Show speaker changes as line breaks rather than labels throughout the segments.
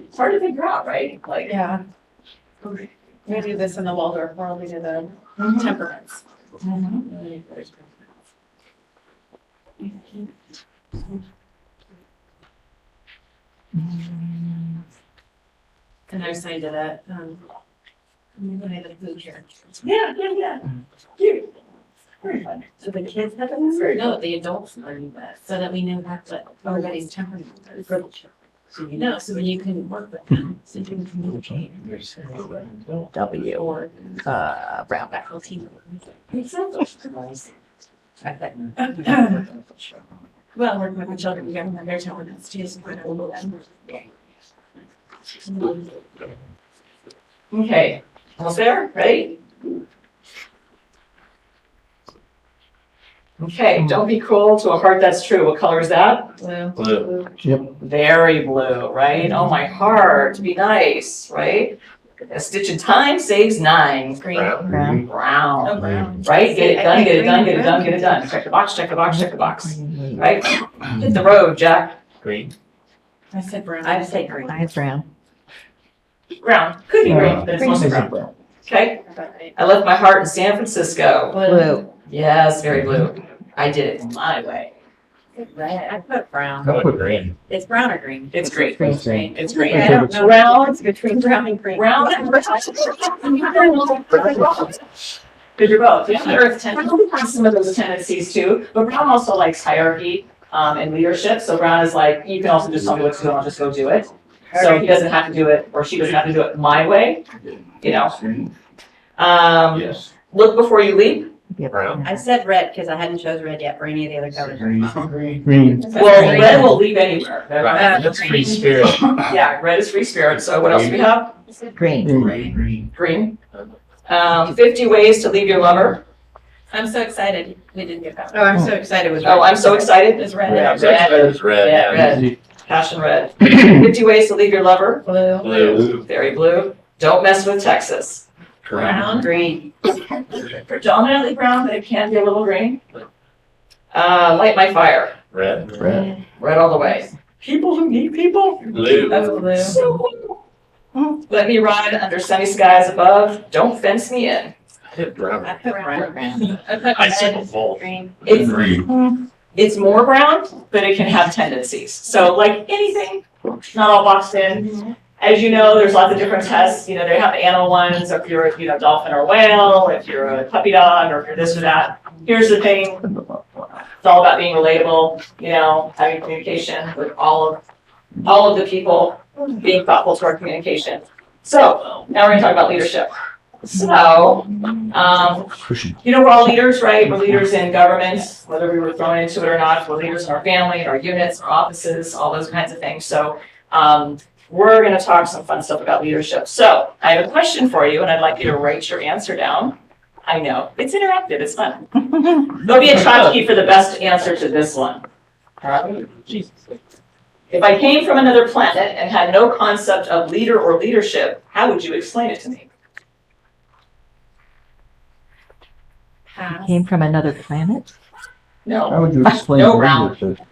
it's hard to figure out, right? Like,
Yeah. We do this in the Waldorf world, we do the temperaments.
Mm-hmm. And I signed it at, um, when I had the food here.
yeah, yeah, yeah. Cute. Very fun.
So the kids have
That's
it?
very
No, the adults learning that, so that we know that's what everybody's temperament is. So you know, so then you can work with them, so you can communicate.
W,
Or
uh, Brown.
faculty. Well, working with the children, we got their temperaments too, so we're all them.
Okay, all there, right? Okay, don't be cruel to a heart that's true. What color is that? Blue.
Blue. Yep.
Very blue, right? Oh, my heart, be nice, right? A stitch in time saves nine.
Green. Oh,
Brown.
Brown,
brown.
right? Get it done, get it done, get it
Green,
done, get it done. Check the box, check the box, check the box, right? Hit the road, Jack.
Green.
I said brown.
I'd say green.
Mine's brown.
Brown, could be green,
Brown.
but it's mostly
Uh, Green.
brown. Okay, I left my heart in San Francisco.
Blue.
Yes, very blue. I did it my way.
Red. I put brown.
I put green.
It's brown or green.
It's great.
Green.
It's
Green,
great.
I don't know. Brown, it's between brown and green.
Round and Did your vote? Yeah. Earth Brown has some of those tendencies too, but Brown also likes hierarchy um, and leadership. So Brown is like, you can also just tell me what to do, and I'll just go do it. So he doesn't have to do it, or she doesn't have to do it my way. You know. Um,
Yes.
look before you leap.
Brown.
I
said red because I hadn't chose red yet for any of the other colors.
Green. Green.
Well, red will leap anywhere.
Right, That's free spirit.
Yeah, red is free spirit. So what else do we have?
Green.
Green.
Green. Um, fifty ways to leave your lover.
I'm so excited. We didn't get that.
Oh, I'm so excited with red.
Oh, I'm so excited.
It's
Yeah,
red.
Red.
It's red.
Yeah,
red.
Passion red. 50 ways to leave your lover.
Blue.
Blue.
Very blue. Don't mess with Texas.
Brown.
Green.
Predominantly brown, but it can be a little green. Uh, light my fire.
Red.
Red.
Red all the way. People who need people.
Blue.
That's so cool. Let me ride under sunny skies above. Don't fence me in.
I hit brown.
put brown.
Brown.
I put
I said
red.
both.
Green.
It's
Green.
it's more brown, but it can have tendencies. So like anything, not all boxed in. As you know, there's lots of different tests. You know, they have animal ones, if you're, a, you know, dolphin or whale, if you're a puppy dog, or if you're this or that. Here's the thing. It's all about being relatable, you know, having communication with all of, all of the people, being thoughtful to our communication. So now we're gonna talk about leadership. So, um, you know, we're all leaders, right? We're leaders in government, whether we were thrown into it or not. We're leaders in our family, in our units, our offices, all those kinds of things. So um, we're going to talk some fun stuff about leadership. So I have a question for you, and I'd like you to write your answer down. I know it's interactive. It's fun. There'll be a tchotchke for the best answer to this one. All right? If I came from another planet and had no concept of leader or leadership, how would you explain it to me?
Pass.
Came from another planet?
No.
How would you explain
No round.
leadership?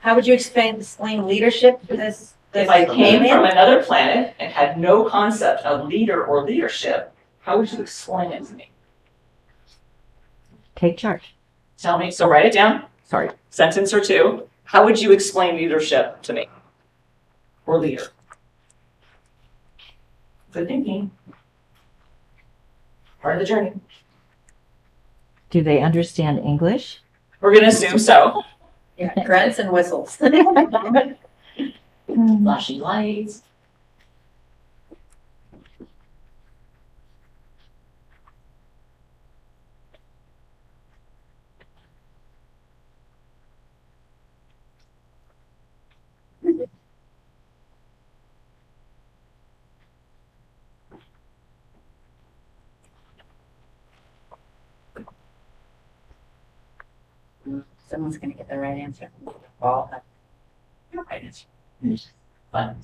How would you explain, explain leadership to this?
If I
this
came
woman?
from another planet and had no concept of leader or leadership, how would you explain it to me?
Take charge.
Tell me, so write it down,
Sorry.
sentence or two. How would you explain leadership to me? Or leader? Good thinking. Part of the journey.
Do they understand English?
We're gonna assume so.
Yeah, grunts and whistles.
Flashing lights.
Someone's gonna get the right answer.
Well. Fun.